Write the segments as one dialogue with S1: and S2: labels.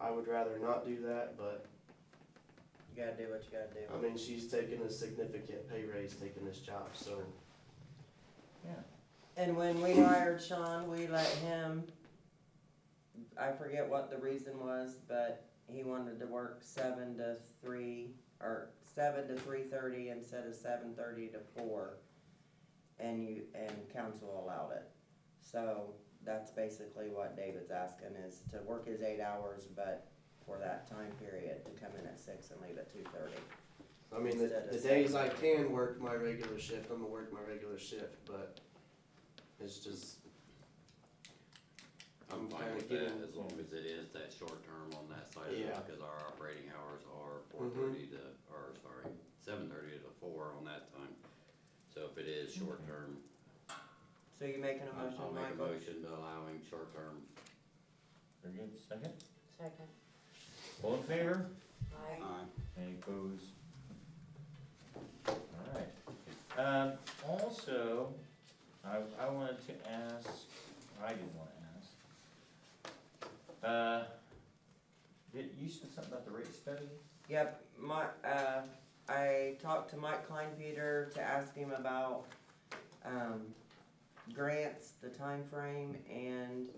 S1: I would rather not do that, but
S2: You gotta do what you gotta do.
S1: I mean, she's taking a significant pay raise taking this job, so
S2: And when we hired Sean, we let him, I forget what the reason was, but he wanted to work seven to three, or seven to three thirty instead of seven thirty to four. And you, and council allowed it. So that's basically what David's asking is to work his eight hours, but for that time period, to come in at six and leave at two thirty.
S1: I mean, the,
S2: Instead of
S1: the days I can work my regular shift, I'm gonna work my regular shift, but it's just.
S3: I'm fine
S1: kinda
S3: with that,
S1: getting-
S3: as long as it is that short term on that side of
S1: Yeah.
S3: it, because our operating hours are four thirty to, or sorry, seven thirty to four on that time. So if it is short term,
S2: So you making a
S3: I'll
S2: motion,
S3: I'll make a
S2: Michael?
S3: motion to allowing short term.
S4: Very good, second.
S5: Second.
S4: All in favor?
S5: Aye.
S4: Any opposed? Alright, um, also, I, I wanted to ask, I didn't wanna ask. Uh, did, you said something about the rate study?
S2: Yep, my, uh, I talked to Mike Kleinpeter to ask him about, um, grants, the time frame, and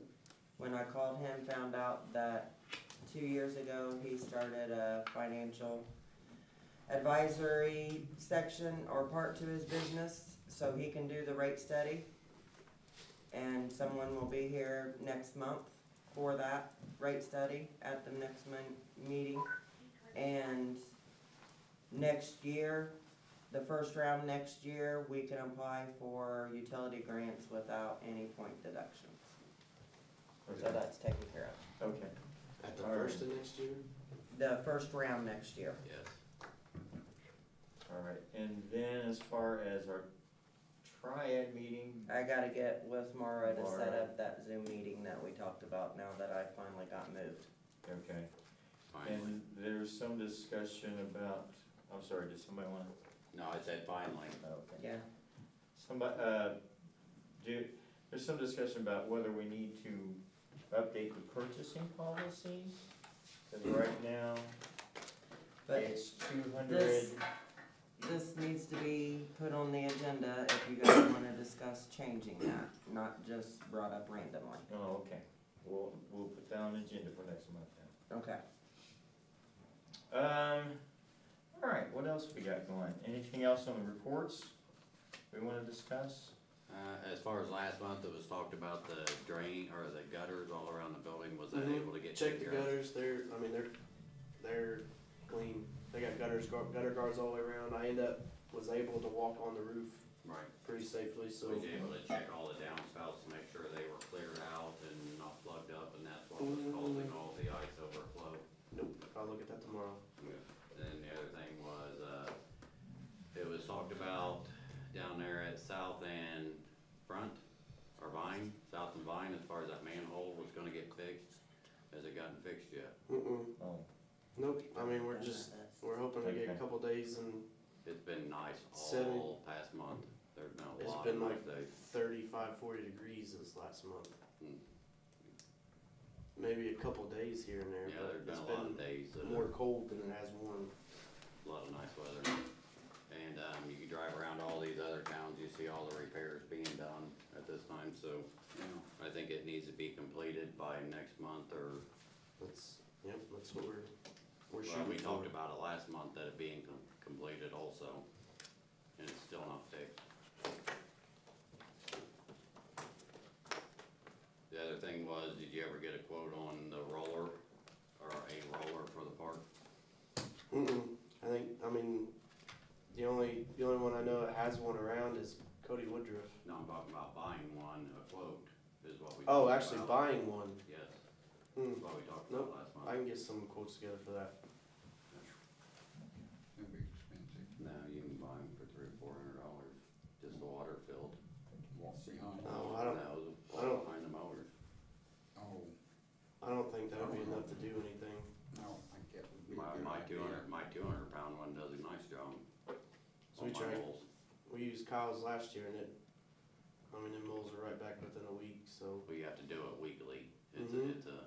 S2: when I called him, found out that two years ago, he started a financial advisory section or part to his business, so he can do the rate study. And someone will be here next month for that rate study at the next mon- meeting. And next year, the first round next year, we can apply for utility grants without any point deductions. So that's taken care of.
S4: Okay,
S1: At the
S4: Alright.
S1: first of next year?
S2: The first round next year.
S3: Yes,
S4: alright, and then as far as our triad meeting,
S2: I gotta get with Mara to set
S4: Mara.
S2: up that Zoom meeting that we talked about now that I finally got moved.
S4: okay.
S3: finally.
S4: And there's some discussion about, I'm sorry, did somebody wanna,
S3: No, I said finally.
S4: oh, okay.
S2: Yeah.
S4: Somebody, uh, do, there's some discussion about whether we need to update the purchasing policy. Cause right now,
S2: But
S4: it's two hundred,
S2: this, this needs to be put on the agenda if you guys wanna discuss changing that, not just brought up randomly.
S4: oh, okay, we'll, we'll put that on the agenda for next month then.
S2: Okay.
S4: Um, alright, what else we got going? Anything else on the reports we wanna discuss?
S3: Uh, as far as last month, it was talked about the drain, or the gutters all around the building, was that
S1: Mhm.
S3: able to get
S1: Check
S3: taken
S1: the
S3: care of?
S1: gutters, they're, I mean, they're, they're clean. They got gutters, gar- gutter guards all the way around. I end up, was able to walk on the roof
S3: Right,
S1: pretty safely, so.
S3: so we was able to check all the downspouts to make sure they were cleared out and not plugged up, and that's what was causing all the ice overflow.
S1: Nope, I'll look at that tomorrow.
S3: And then the other thing was, uh, it was talked about down there at South and Front, or Vine, South and Vine, as far as that manhole was gonna get fixed. Has it gotten fixed yet?
S1: Mm-mm,
S4: Oh,
S1: nope, I mean, we're just, we're hoping to get a
S4: Okay.
S1: couple days and
S3: It's been nice
S1: Seven.
S3: all past month. There's been a
S1: It's
S3: lot of
S1: been like
S3: nice days.
S1: 35, 40 degrees this last month.
S3: Mm.
S1: Maybe a couple days here and there,
S3: Yeah,
S1: but
S3: there's
S1: it's
S3: been a lot of
S1: been
S3: days, that
S1: more
S3: are
S1: cold than it has warm.
S3: a lot of nice weather. And, um, you can drive around all these other towns, you see all the repairs being done at this time, so, you know, I think it needs to be completed by next month or
S1: That's yep, that's what we're we're
S3: Well,
S1: shooting.
S3: we talked
S1: for.
S3: about it last month, that it being com- completed also, and it's still not fixed. The other thing was, did you ever get a quote on the roller, or a roller for the park?
S1: Mm-mm. I think I mean the only the only one I know that has one around is Cody Woodruff.
S3: No, I'm talking about buying one, a quote, is what we.
S1: Oh,
S3: talked
S1: actually
S3: about.
S1: buying one.
S3: Yes,
S1: Mm.
S3: that's what we talked
S1: Nope,
S3: about last
S1: I
S3: month.
S1: can get some quotes together for that.
S6: That'd be expensive.
S3: No, you can buy them for three, or four hundred dollars, just the water filled.
S6: Walk behind.
S1: No, Oh, I don't.
S3: No, the-
S1: I don't-
S3: Behind the mowers.
S6: Oh,
S1: I don't think that would be enough to do anything.
S6: I don't think that would be a
S3: My,
S6: good
S3: my two
S6: idea.
S3: hundred, my two hundred pound one does a nice job.
S1: So we
S3: on Oh, my
S1: tried.
S3: moles.
S1: We used Kyle's last year and it. I mean, the moles are right back within a week, so.
S3: We have to do it weekly. It's,
S1: Mhm.
S3: a, it's a